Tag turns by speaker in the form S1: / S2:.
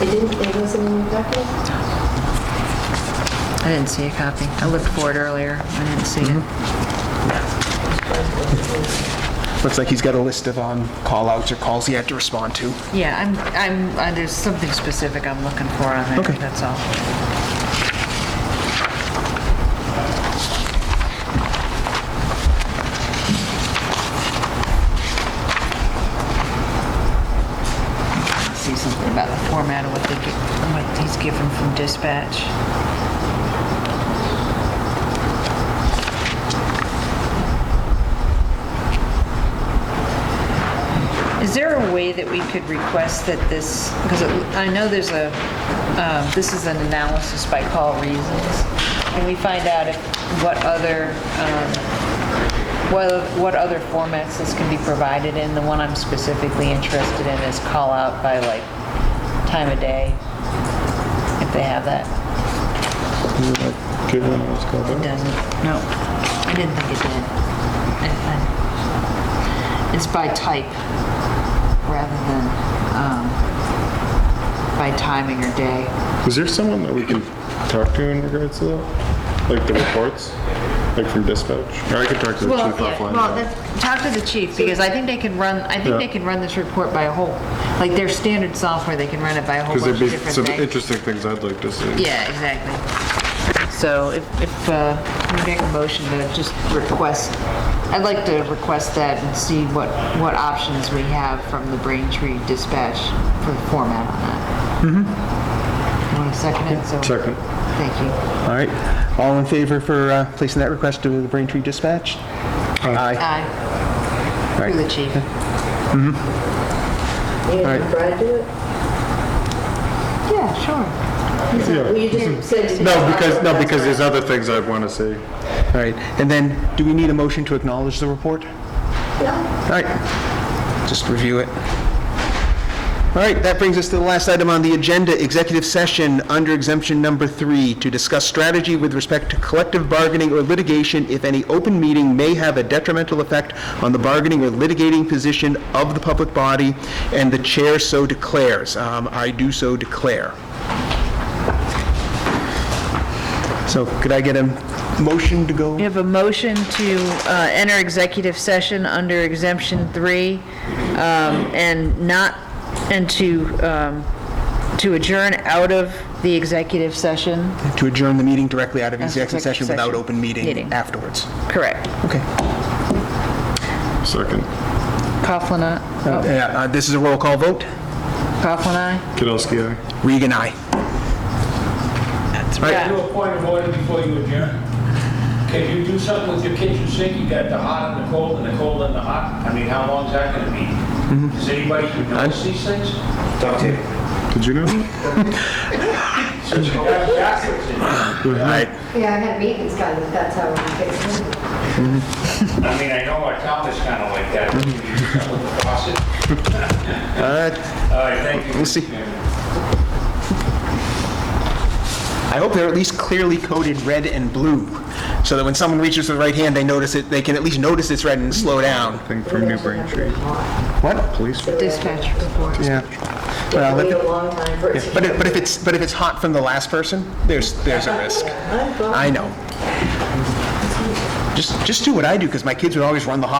S1: It didn't, it wasn't in your packet?
S2: I didn't see a copy. I looked for it earlier. I didn't see it.
S3: Looks like he's got a list of um, call-outs or calls he had to respond to.
S2: Yeah, I'm, I'm, uh, there's something specific I'm looking for on there,
S3: Okay.
S2: that's all. See something about the format of what they get, what he's given from dispatch. Is there a way that we could request that this, because I know there's a, um, this is an analysis by call reasons, and we find out if, what other, um, what what other formats this can be provided in? The one I'm specifically interested in is call out by like time of day, if they have that.
S4: Good one, let's go
S2: It
S4: back.
S2: doesn't. No. I didn't think it did. I- I- It's by type rather than um, by timing or day.
S4: Is there someone that we can talk to in regards to that? Like the reports, like from dispatch? Or I could talk to the
S2: Well,
S4: chief offline.
S2: well, that's- talk to the chief because I think they can run, I think
S4: Yeah.
S2: they can run this report by a whole, like their standard software, they can run it by a whole
S4: Because
S2: bunch
S4: there'd
S2: of
S4: be
S2: different
S4: some
S2: things.
S4: interesting things I'd like to see.
S2: Yeah, exactly. So if, if, uh, we make a motion to just request, I'd like to request that and see what, what options we have from the Braintree Dispatch for the format on that. Mm-hmm. Want to second it? So-
S4: Second.
S2: Thank you.
S3: All right, all in favor for uh, placing that request to the Braintree Dispatch? Aye.
S2: Aye.
S3: Right.
S2: Through the chief.
S1: And Mm-hmm. Brad do it?
S2: Yeah, sure.
S1: Well, you just said it.
S4: No, because, no, because there's other things I'd want to see.
S3: All right, and then, do we need a motion to acknowledge the report? Yeah. All right, just review it. All right, that brings us to the last item on the agenda, executive session under exemption number three, to discuss strategy with respect to collective bargaining or litigation if any open meeting may have a detrimental effect on the bargaining or litigating position of the public body, and the chair so declares. Um, I do so declare. So could I get a motion to go?
S2: We have a motion to uh, enter executive session under exemption three um, and not, and to, um, to adjourn out of the executive session.
S3: to adjourn the meeting directly out of
S2: executive
S3: Uh, executive session without
S2: session.
S3: open
S2: Meeting.
S3: meeting afterwards.
S2: Correct.
S3: Okay.
S4: Second.
S2: Coughlin,
S3: Uh,
S2: aye.
S3: yeah, uh, This is a roll call vote.
S2: Coughlin, aye.
S4: Kidowski, aye.
S3: Regan, aye.
S2: That's
S5: Do a point of order before you adjourn. Can you do something with your kitchen sink? You got the hot and the cold and the cold and the hot. I mean, how long's that gonna be?
S3: Mm-hmm.
S5: Does anybody even notice these things?
S4: Did you know? that?
S5: Since you got backwards in here.
S1: Yeah, I had meetings, guys, that's how we fixed it.
S5: I mean, I know our town is kinda like that.
S3: Mm-hmm.
S5: Can you do something with the faucet?
S3: Uh,
S5: All right, thank you.
S3: We'll see.
S5: Mr. Chairman.
S3: I hope they're at least clearly coded red and blue, so that when someone reaches for the right hand, they notice it, they can at least notice it's red and slow down.
S4: Thing from New Braintree.
S3: What?
S4: Police.
S2: Dispatch report.
S3: Yeah. Well,
S1: Wait
S3: let-
S1: a long time for it to.
S3: But if, but if it's, but if it's hot from the last person, there's, there's a risk. I know. Just, just do what I do, because my kids would always run the hot